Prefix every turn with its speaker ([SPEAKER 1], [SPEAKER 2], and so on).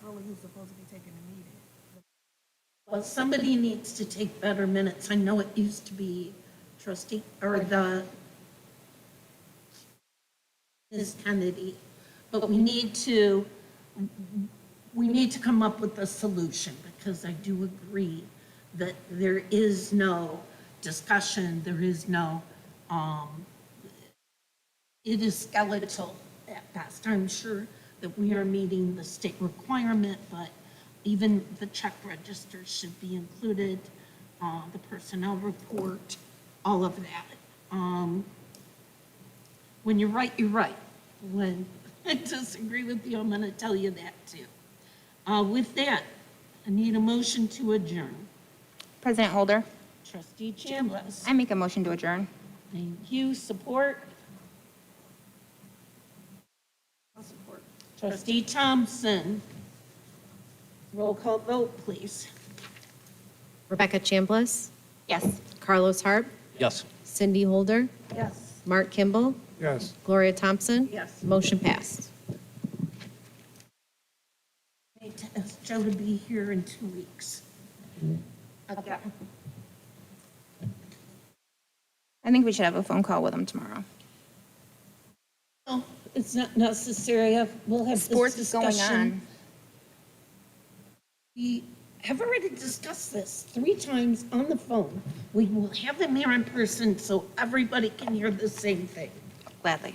[SPEAKER 1] who's Oh, supposed to be taking the meeting.
[SPEAKER 2] Well, somebody needs to take better minutes. I know it used to be trustee, or the Ms. Kennedy, but we need to, we need to come up with a solution, because I do agree that there is no discussion, there is no, um, it is skeletal at best. I'm sure that we are meeting the state requirement, but even the check register should be included, uh, the personnel report, all of that. Um, When you're right, you're right. When I disagree with you, I'm going to tell you that too. Uh, With that, I need a motion to adjourn.
[SPEAKER 3] President Holder,
[SPEAKER 2] Trustee Chambliss,
[SPEAKER 3] I make a motion to adjourn.
[SPEAKER 2] thank you, support.
[SPEAKER 1] I'll support.
[SPEAKER 2] Trustee Thompson. Roll call vote, please.
[SPEAKER 4] Rebecca Chambliss,
[SPEAKER 3] Yes.
[SPEAKER 4] Carlos Harp,
[SPEAKER 5] Yes.
[SPEAKER 4] Cindy Holder,
[SPEAKER 2] Yes.
[SPEAKER 4] Mark Kimball,
[SPEAKER 6] Yes.
[SPEAKER 4] Gloria Thompson.
[SPEAKER 2] Yes.
[SPEAKER 4] Motion passed.
[SPEAKER 2] Joe to be here in two weeks. Okay.
[SPEAKER 3] I think we should have a phone call with him tomorrow.
[SPEAKER 2] Well, It's not necessary. I've- We'll have this
[SPEAKER 3] Sports is going
[SPEAKER 2] discussion.
[SPEAKER 3] on.
[SPEAKER 2] We have already discussed this three times on the phone. We will have him here in person so everybody can hear the same thing.
[SPEAKER 3] Gladly.